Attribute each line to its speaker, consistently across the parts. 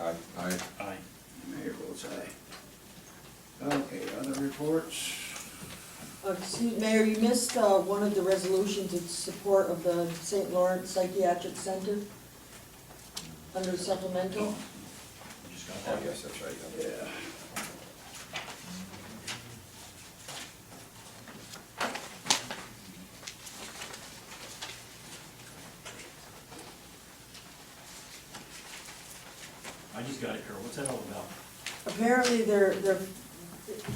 Speaker 1: Aye.
Speaker 2: Aye.
Speaker 3: Aye.
Speaker 4: Mayor votes aye. Okay, other reports?
Speaker 5: Uh, Excuse, Mayor, you missed uh, one of the resolutions in support of the St. Lawrence Psychiatric Center under supplemental.
Speaker 3: We Just got
Speaker 1: Oh,
Speaker 3: that.
Speaker 1: yes, that's right. yeah.
Speaker 4: Yeah.
Speaker 3: I just got it, Carol. What's that all about?
Speaker 5: Apparently, they're, they're,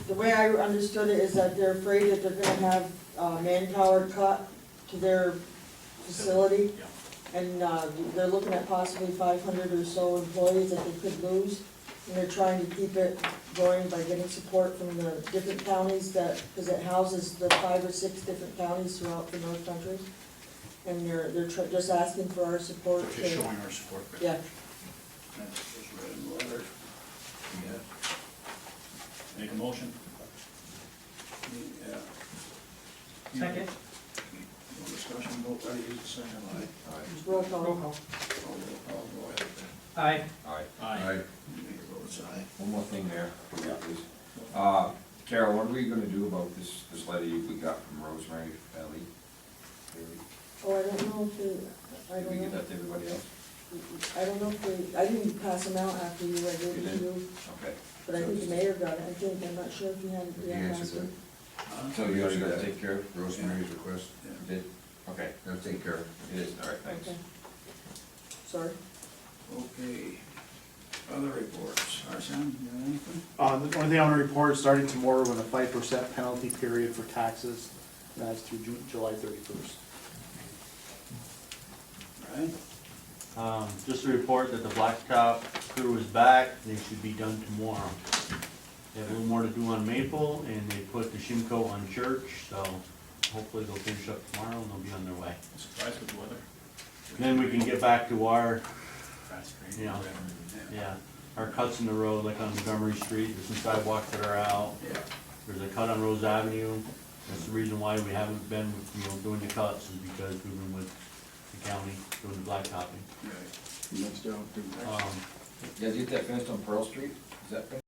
Speaker 5: the way I understood it is that they're afraid that they're gonna have uh, manpower cut to their facility,
Speaker 3: Yeah.
Speaker 5: and uh, they're looking at possibly five hundred or so employees that they could lose, and they're trying to keep it going by getting support from the different counties that, because it houses the five or six different counties throughout the North Country, and they're, they're tr- just asking for our support. to-
Speaker 3: Just showing our support.
Speaker 5: Yeah,
Speaker 4: That's just read in the letter.
Speaker 3: Make a motion.
Speaker 4: Yeah.
Speaker 6: Second?
Speaker 4: No discussion, vote, I use the second line.
Speaker 1: Aye.
Speaker 5: roll call.
Speaker 4: All roll call, go ahead.
Speaker 6: Aye.
Speaker 1: Aye.
Speaker 3: Aye.
Speaker 2: Aye.
Speaker 4: Mayor votes aye.
Speaker 1: One more thing there, for you, please. Uh, Carol, what are we gonna do about this, this letter you- we got from Rosemary Ellie? Did
Speaker 5: Oh, I don't know if they, I don't know.
Speaker 1: we give that to everybody else?
Speaker 5: I don't know if they, I didn't pass them out after you, I gave
Speaker 1: You
Speaker 5: it to you,
Speaker 1: Okay.
Speaker 5: but I think the mayor got it, I think, I'm not sure if you had it
Speaker 2: You
Speaker 5: yet
Speaker 2: answered
Speaker 5: last
Speaker 2: that.
Speaker 5: week.
Speaker 1: So you already got that taken care of?
Speaker 2: Rosemary's request,
Speaker 4: Yeah.
Speaker 1: You Did, okay,
Speaker 2: that's taken care of.
Speaker 1: it is, all right, thanks.
Speaker 5: Okay. Sorry.
Speaker 4: Okay. Other reports, Arson, you have anything?
Speaker 7: Uh, the only thing I want to report is starting tomorrow with a five percent penalty period for taxes, and that's through Ju- July thirty-first.
Speaker 4: Brian?
Speaker 8: Um, just to report that the blacktop crew is back, they should be done tomorrow. They have a little more to do on Maple, and they put the Shimco on Church, so hopefully they'll finish up tomorrow and they'll be on their way.
Speaker 3: I'm Surprised with the weather.
Speaker 8: Then we can get back to our,
Speaker 3: Fast grade.
Speaker 8: Yeah. yeah, our cuts in the road, like on Montgomery Street, there's some sidewalks that are out,
Speaker 4: Yeah.
Speaker 8: there's a cut on Rose Avenue. That's the reason why we haven't been, you know, doing the cuts, is because we've been with the county doing the blacktopping.
Speaker 4: Right. Let's do it.
Speaker 8: Um,
Speaker 1: You guys get that finished on Pearl Street? Is that finished?